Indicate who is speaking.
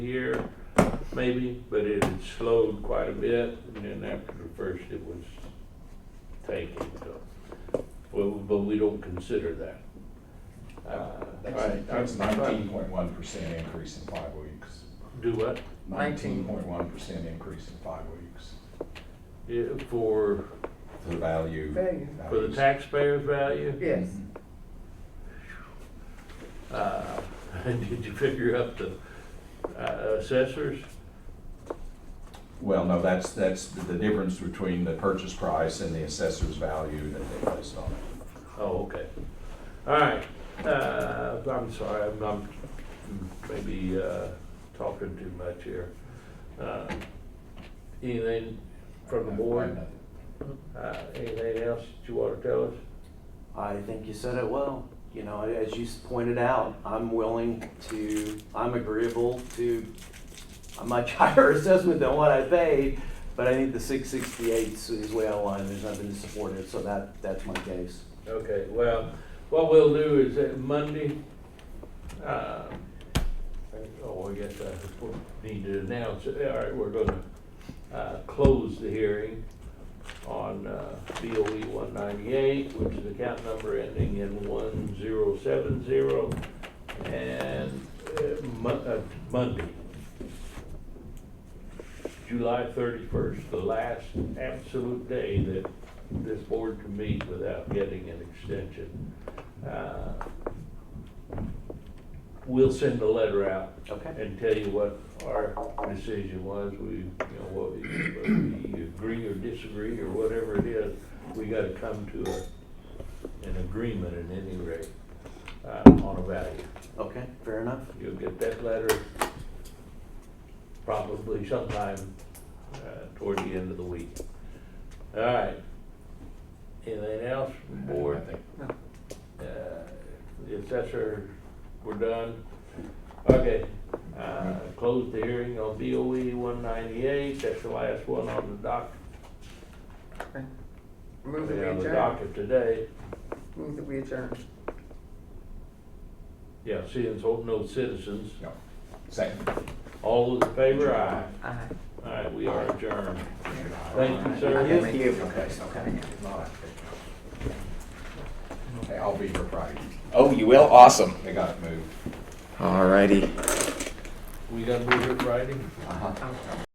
Speaker 1: year, maybe, but it had slowed quite a bit, and then after the first, it was tanking, so. Well, but we don't consider that. Uh, all right,
Speaker 2: That's
Speaker 1: I'm- I'm-
Speaker 2: nineteen point one percent increase in five weeks.
Speaker 1: Do what?
Speaker 2: Nineteen point one percent increase in five weeks
Speaker 1: Yeah, for,
Speaker 2: for the value. Mm-hmm.
Speaker 3: Value.
Speaker 1: for the taxpayer's value?
Speaker 3: Yes,
Speaker 1: Uh, did you figure up the uh, assessors?
Speaker 2: Well, no, that's, that's the the difference between the purchase price and the assessor's value that they placed on it.
Speaker 1: Oh, okay. All right, uh, I'm sorry, I'm, I'm maybe, uh, talking too much here. Uh, Anything from the board? Uh, anything else that you wanna tell us?
Speaker 4: I think you said it well. You know, as you s- pointed out, I'm willing to, I'm agreeable to a much higher assessment than what I paid, but I think the six sixty-eight is way out of line. There's nothing to support it, so that, that's my case.
Speaker 1: Okay, well, what we'll do is that Monday, uh, oh, I guess I need to announce, it. all right, we're gonna, uh, close the hearing on, uh, BOE one ninety-eight, which is account number ending in one zero seven zero, and, uh, Mon- uh, Monday, July thirty-first, the last absolute day that this board can meet without getting an extension. Uh, We'll send a letter out
Speaker 4: Okay.
Speaker 1: and tell you what our decision was, we, you know, what we, whether we agree or disagree or whatever it is, we gotta come to a, an agreement at any rate, uh, on a value.
Speaker 4: Okay, fair enough.
Speaker 1: You'll get that letter probably sometime uh, toward the end of the week. All right. Anything else, from the
Speaker 2: Board,
Speaker 1: board?
Speaker 2: I think.
Speaker 1: Uh, The assessor, we're done. Okay, uh, close the hearing on BOE one ninety-eight, that's the last one on the doc,
Speaker 3: move that we
Speaker 1: on the
Speaker 3: adjourn,
Speaker 1: docket today.
Speaker 3: move that we adjourn.
Speaker 1: Yeah, seeing as no citizens,
Speaker 2: No. Second.
Speaker 1: all those in favor, aye.
Speaker 3: Aye.
Speaker 1: All right, we are adjourned. Thank you, sir.
Speaker 4: Thank you.
Speaker 2: Okay, okay. Okay, I'll be here Friday.
Speaker 5: Oh, you will? Awesome.
Speaker 2: They got it moved.
Speaker 5: Alrighty.
Speaker 1: We gotta move it Friday?
Speaker 2: Uh-huh.